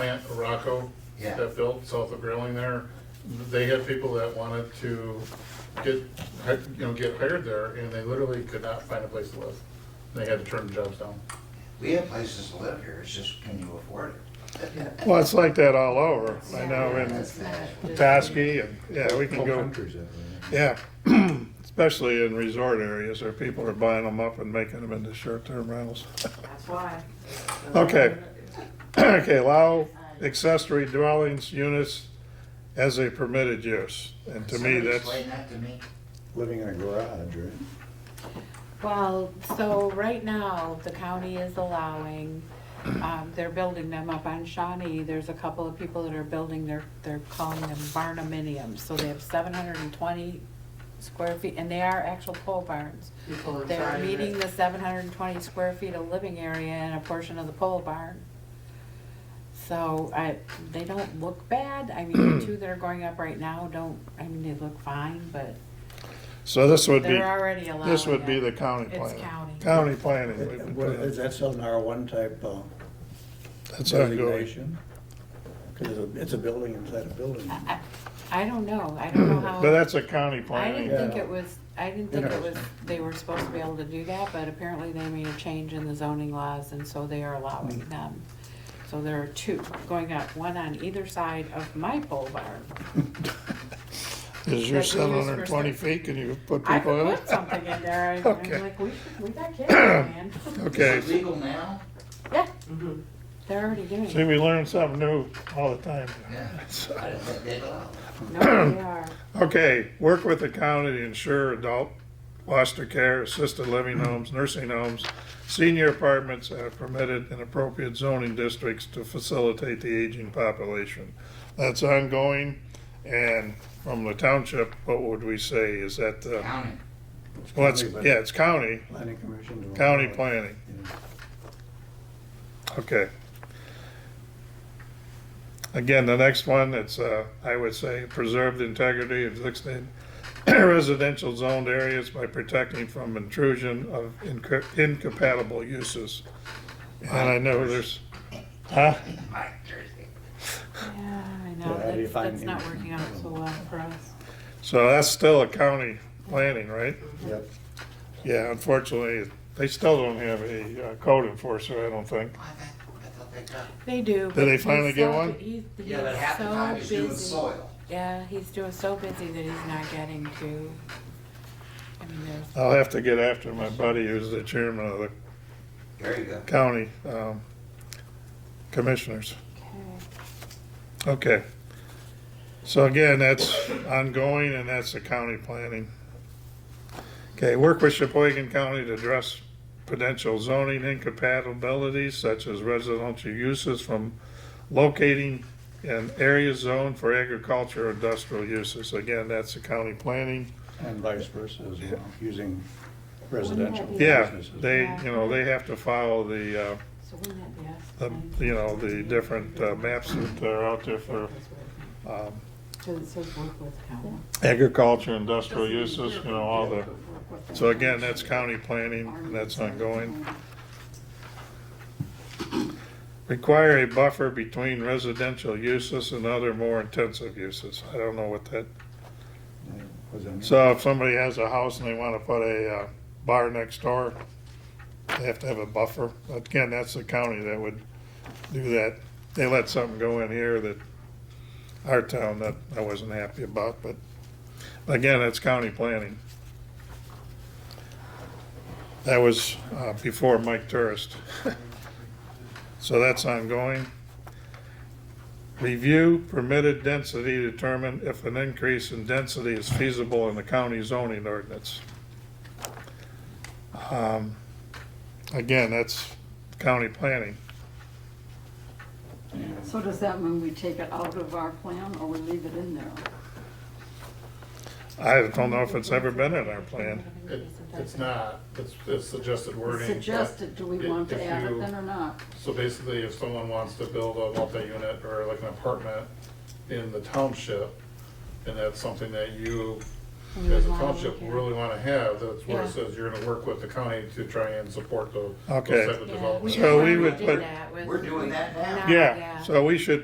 plant, Rocco, Yeah. that built south of Grilling there, they had people that wanted to get, hi- you know, get hired there, and they literally could not find a place to live. They had to turn the jobs down. We have places to live here, it's just can you afford it? Well, it's like that all over. I know in That's not- Petoskey and, yeah, we can Whole go, countries that way. yeah. Especially in resort areas where people are buying them up and making them into short-term rentals. That's why. Okay. Okay, allow accessory dwellings units as a permitted use. And to me, Somebody that's, Explain that to me. Living in a garage, right? Well, so right now, the county is allowing, um, they're building them up on Shawnee. There's a couple of people that are building, they're, they're calling them barnuminiums. So they have seven hundred and twenty square feet, and they are actual pole barns. They're meeting the seven hundred and twenty square feet of living area and a portion of the pole barn. So I, they don't look bad. I mean, the two that are going up right now don't, I mean, they look fine, but so this would be, they're already allowing this would be it. the county It's planning. county. County planning. we've been What, putting- is that still an R1 type uh, That's how it goes. designation? Because it's a, it's a building inside a building. I- I don't know, I don't know how. But that's a county Uh-huh. I planning. didn't think Yeah. it was, I didn't think it was, Interesting. they were supposed to be able to do that, but apparently they made a change in the zoning laws, and so they are allowing Hmm. them. So there are two going up, one on either side of my pole barn. Is your that we seven hundred use for and twenty stuff. feet, can you put I people in could it? put something in there, and Okay. I'm like, we, we got kids, man. Okay, Is it legal now? Yeah, they're already doing see, it. we learn something new all the time. Yeah. I didn't think they'd allow it. No, they are. Okay, work with the county to ensure adult foster care, assisted living homes, nursing homes, senior apartments are permitted in appropriate zoning districts to facilitate the aging population. That's ongoing, and from the township, what would we say, is that, uh, County, well, it's, yeah, it's county, Planning commission. to- county planning. Okay. Again, the next one, it's, uh, I would say, preserve the integrity of existing residential zoned areas by protecting from intrusion of inc- incompatible uses. And I know there's, huh? Mike Jersey. Yeah, I So know, how do you that's, find that's not it? working out so well for us. So that's still a county planning, right? Yep. Yeah, unfortunately, they still don't have a uh, code enforcer, I don't think. I thought- I thought they got- They do. Did they but finally he's get so- one? He's, he's Yeah, but half the time he's so doing busy. soil. Yeah, he's doing so busy that he's not getting to. I mean, there's. I'll have to get after my buddy who's the chairman of the There you go. county um, commissioners. Okay. So again, that's ongoing and that's the county planning. Okay, work with Sheboygan County to address potential zoning incompatibilities such as residential uses from locating an area zone for agriculture or industrial uses. Again, that's the county planning. And vice versa as well, using residential. Wouldn't that be- Yeah, businesses. they, you know, they have to follow the, uh, So wouldn't that be us? the, you know, the different uh, maps that are out there for um, Cause it says work with county. agriculture, industrial uses, you know, all the, so again, that's county planning, and that's ongoing. Require a buffer between residential uses and other more intensive uses. I don't know what that, Was in- so if somebody has a house and they want to put a uh, bar next door, they have to have a buffer. Again, that's the county that would do that. They let something go in here that, our town, that I wasn't happy about, but again, that's county planning. That was uh, before Mike Tourist. So that's ongoing. Review permitted density to determine if an increase in density is feasible in the county zoning ordinance. Um, Again, that's county planning. So does that mean we take it out of our plan or we leave it in there? I don't know if it's ever been in our plan. It, it's not, it's, it's suggested wording. but Suggested, do we want if to add you- it then or not? So basically, if someone wants to build a multi-unit or like an apartment in the township, and that's something that you, We as a would wanna township, look at. really wanna have, that's where Yeah. it says you're gonna work with the county to try and support the, those Okay. type of Yeah, developments. So we already would did put- that with- We're doing that now. Now, Yeah, so we should